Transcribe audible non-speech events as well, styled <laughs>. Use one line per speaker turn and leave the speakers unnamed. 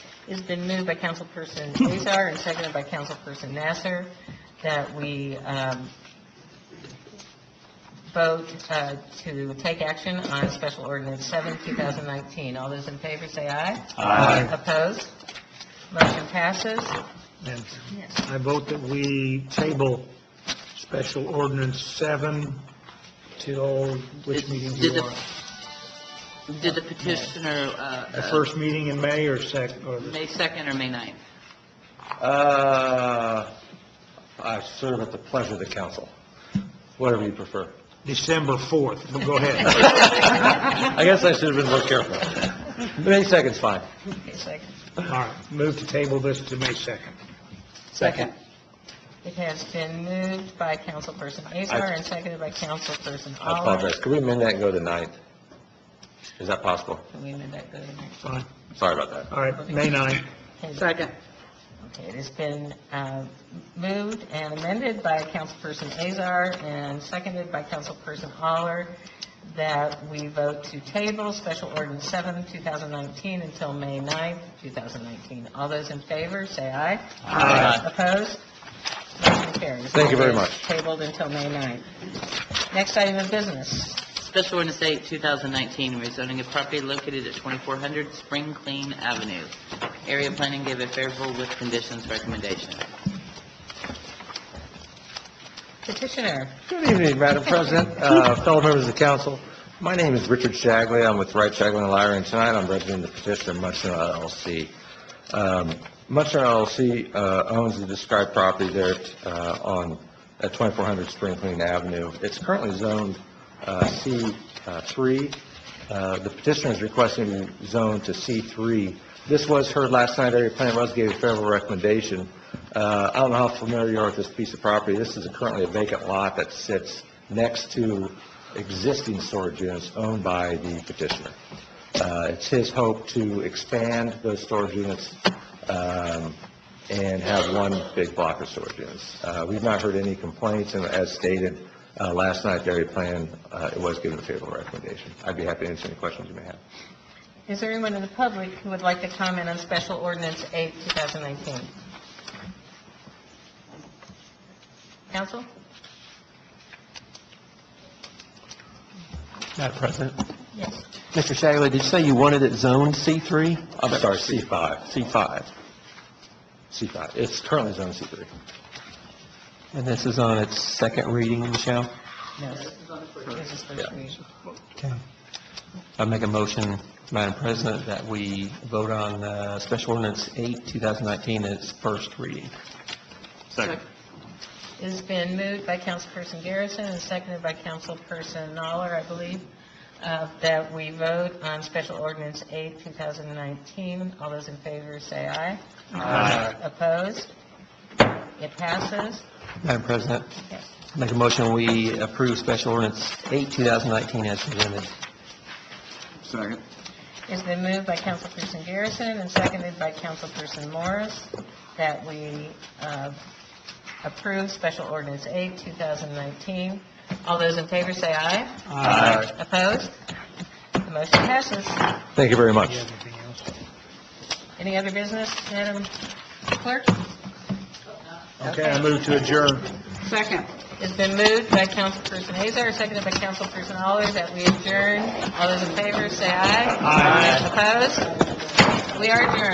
It's been moved by Councilperson Azar and seconded by Councilperson Nasser that we um, vote uh, to take action on Special Ordinance 7, 2019. All those in favor say aye.
Aye.
Opposed? Motion passes.
And
Yes.
I vote that we table Special Ordinance 7 till which meeting do
Did
you
the-
want?
Did the petitioner, uh,
The
uh,
first meeting in May or sec, or the-
May 2nd or May 9th?
Uh, I serve at the pleasure of the council, whatever you prefer.
December 4th? But
<laughs>
Go ahead.
I guess I should have been more careful. May 2nd's fine.
Okay, second.
All right, move to table this to May 2nd.
Second.
It has been moved by Councilperson Azar and seconded by Councilperson
I
Aller.
apologize. Could we amend that and go to the 9th? Is that possible?
Can we amend that, go to the next?
Fine.
Sorry about that.
All right, May 9th.
Okay.
Second.
Okay, it has been uh, moved and amended by Councilperson Azar and seconded by Councilperson Aller that we vote to table Special Ordinance 7, 2019 until May 9, 2019. All those in favor, say aye.
Aye.
Opposed? Motion carries.
Thank you very
It is
much.
Tabled until May 9. Next item of business.
Special ordinance 8, 2019, rezoning a property located at 2400 Spring Clean Avenue. Area planning gave a favorable with conditions recommendation.
Petitioner,
Good evening, Madam President, <laughs> uh, fellow members of the council. My name is Richard Shagley, I'm with Wright Shagley and Lowry, and tonight I'm representing the petitioner Munson LLC. Um, Munson LLC uh, owns the described property there uh, on, at 2400 Spring Clean Avenue. It's currently zoned uh, C3. Uh, The petitioner is requesting it zoned to C3. This was heard last night, area plan was gave a favorable recommendation. Uh, I don't know how familiar you are with this piece of property. This is currently a vacant lot that sits next to existing storage units owned by the petitioner. Uh, It's his hope to expand those storage units um, and have one big block of storage units. Uh, We've not heard any complaints, and as stated uh, last night, the area plan, uh, it was given a favorable recommendation. I'd be happy to answer any questions you may have.
is there anyone in the public who would like to comment on Special Ordinance 8, 2019? Council?
Madam President,
Yes.
Mr. Shagley, did you say you wanted it zoned C3?
I'm sorry, C5,
C5.
C5. It's currently zoned C3.
And this is on its second reading, Michelle?
No. This is first
Yeah.
reading.
Okay. I make a motion, Madam President, that we vote on uh, Special Ordinance 8, 2019, at its first reading.
It has been moved by Councilperson Garrison and seconded by Councilperson Aller, I believe, uh, that we vote on Special Ordinance 8, 2019. All those in favor say aye. Aye. Opposed? It passes.
Madam President,
Yes.
make a motion, we approve Special Ordinance 8, 2019, as presented.
It's been moved by Councilperson Garrison and seconded by Councilperson Morris that we uh, approve Special Ordinance 8, 2019. All those in favor say aye. Aye. Opposed? The motion passes.
Thank you very much.
Anything else?
Any other business, Madam Clerk?
Okay, I move to adjourn.
Second. It's been moved by Councilperson Azar, seconded by Councilperson Aller, that we adjourn. All those in favor, say aye. Aye. Opposed? We are adjourned.